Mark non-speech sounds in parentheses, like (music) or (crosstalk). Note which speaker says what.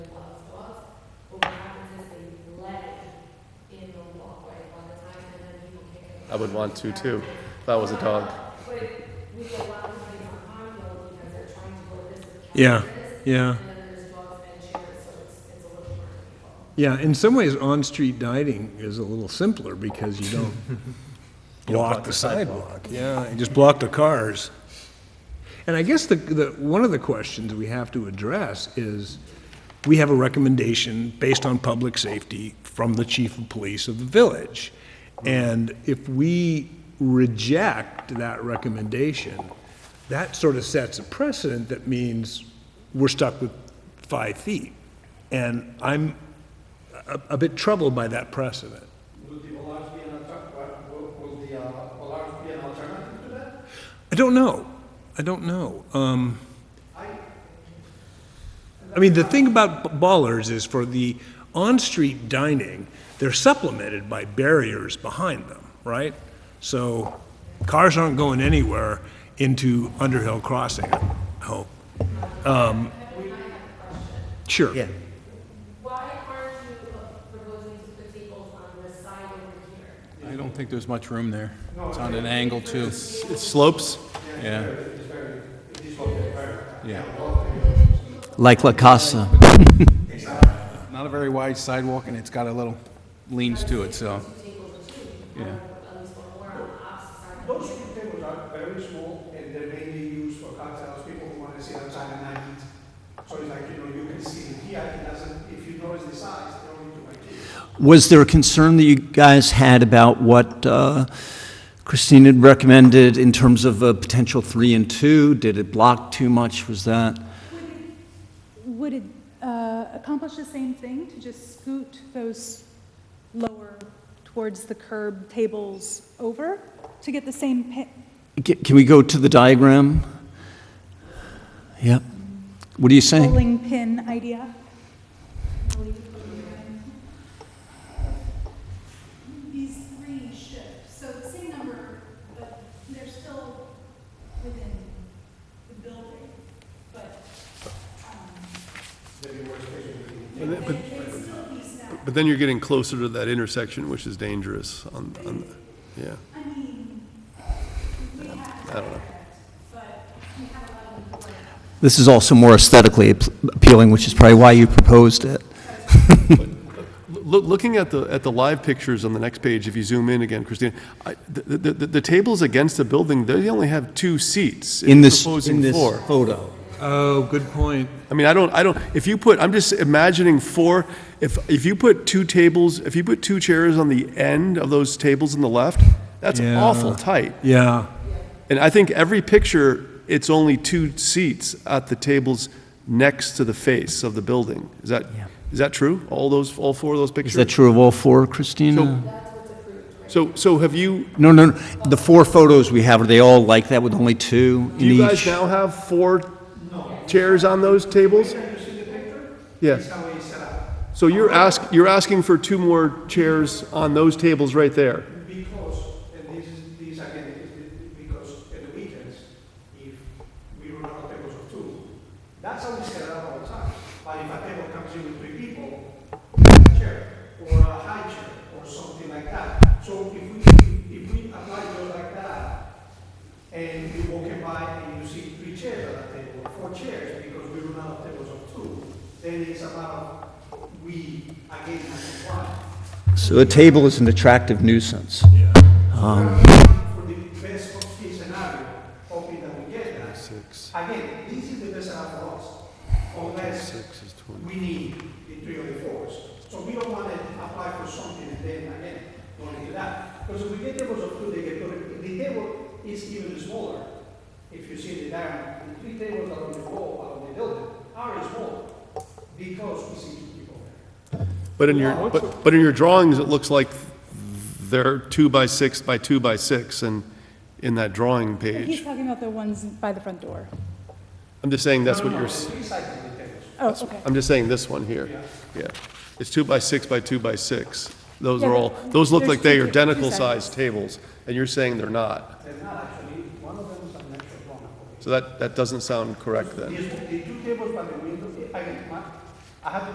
Speaker 1: I would want to too, if I was a dog.
Speaker 2: Yeah, yeah. Yeah, in some ways, on-street dining is a little simpler because (laughs) you don't block the sidewalk. Yeah, you just block the cars. And I guess the, the, one of the questions we have to address is, we have a recommendation based on public safety from the chief of police of the village. And if we reject that recommendation, that sort of sets a precedent that means we're stuck with five feet. And I'm a, a bit troubled by that precedent.
Speaker 3: Will the Velarde be an alter- what- will- will the, uh, Velarde be an alternative to that?
Speaker 2: I don't know. I don't know. Um, I mean, the thing about b- ballers is for the on-street dining, they're supplemented by barriers behind them, right? So cars aren't going anywhere into Underhill Crossing, I hope. Um, Sure.
Speaker 4: Yeah.
Speaker 5: Why aren't you proposing to put tables on the side over here?
Speaker 6: I don't think there's much room there. It's on an angle too.
Speaker 1: It slopes.
Speaker 6: Yeah. Yeah.
Speaker 4: Like La Casa.
Speaker 6: Not a very wide sidewalk and it's got a little leans to it, so. Yeah.
Speaker 3: Those two tables are very small and they're mainly used for cocktails, people who want to sit outside at night. So it's like, you know, you can sit in here, it doesn't, if you notice the size, they don't need to make it.
Speaker 4: Was there a concern that you guys had about what uh, Christine had recommended in terms of a potential three and two? Did it block too much? Was that?
Speaker 7: Would it uh, accomplish the same thing, to just scoot those lower towards the curb tables over to get the same pa-
Speaker 4: Ca- Can we go to the diagram? Yep. What are you saying?
Speaker 7: bowling pin idea?
Speaker 8: These three shift, so the same number, but they're still within the building, but, um. But. It'd still be snug,
Speaker 1: But then you're getting closer to that intersection, which is dangerous on, on, yeah.
Speaker 8: I mean, we have
Speaker 1: I don't know.
Speaker 8: but we have a lot of employees.
Speaker 4: This is also more aesthetically ap- appealing, which is probably why you proposed it.
Speaker 1: Look, looking at the, at the live pictures on the next page, if you zoom in again, Christine, I, the, the, the, the tables against the building, they only have two seats.
Speaker 4: In
Speaker 1: the
Speaker 4: this, in
Speaker 1: Proposing
Speaker 4: this
Speaker 1: floor.
Speaker 4: photo.
Speaker 2: Oh, good point.
Speaker 1: I mean, I don't, I don't, if you put, I'm just imagining four, if, if you put two tables, if you put two chairs on the end of those tables on the left, that's
Speaker 2: Yeah.
Speaker 1: awful tight.
Speaker 2: Yeah.
Speaker 1: And I think every picture, it's only two seats at the tables next to the face of the building. Is that, is that true? All those, all four of those pictures?
Speaker 4: Is that true of all four, Christina?
Speaker 1: So, so have you,
Speaker 4: No, no, no. the four photos we have, are they all like that with only two
Speaker 1: do
Speaker 4: in
Speaker 1: you guys
Speaker 4: each?
Speaker 1: now have four chairs on those tables? Yes. So you're ask, you're asking for two more chairs on those tables right there?
Speaker 3: Because, and this is, these again, is the- because at the weekends, if we run out of tables of two, that's how we set it up all the time. But if a table comes in with three people, a chair, or a high chair, or something like that. So if we, if we apply those like that, and you walk in by and you see three chairs at a table, or four chairs, because we run out of tables of two, then it's about, we, again, have to apply.
Speaker 4: So a table is an attractive nuisance.
Speaker 3: for the best of case scenario, hoping that we get that. Again, this is the best scenario for us, unless we need the three or the fours. So we don't want to apply for something and then again, going to that. Because if we get tables of two, they get put, the table is even smaller. If you see the diagram, the three tables along the wall, along the building, are smaller because we see two people there.
Speaker 1: But in your, but, but in your drawings, it looks like they're two by six by two by six and in that drawing
Speaker 7: He's
Speaker 1: page.
Speaker 7: talking about the ones by the front door.
Speaker 1: I'm just saying that's what you're, s-
Speaker 7: Oh, okay.
Speaker 1: I'm just saying this one here. Yeah. It's two by six by two by six. Those
Speaker 7: Yeah,
Speaker 1: are all,
Speaker 7: but
Speaker 1: those look
Speaker 7: there's
Speaker 1: like they
Speaker 7: two
Speaker 1: are
Speaker 7: ta- two
Speaker 1: identical
Speaker 7: sides.
Speaker 1: sized tables and you're saying they're not.
Speaker 3: They're not actually, one of them is an extra one.
Speaker 1: So that, that doesn't sound correct then.
Speaker 3: These- The two tables by the window, I, I have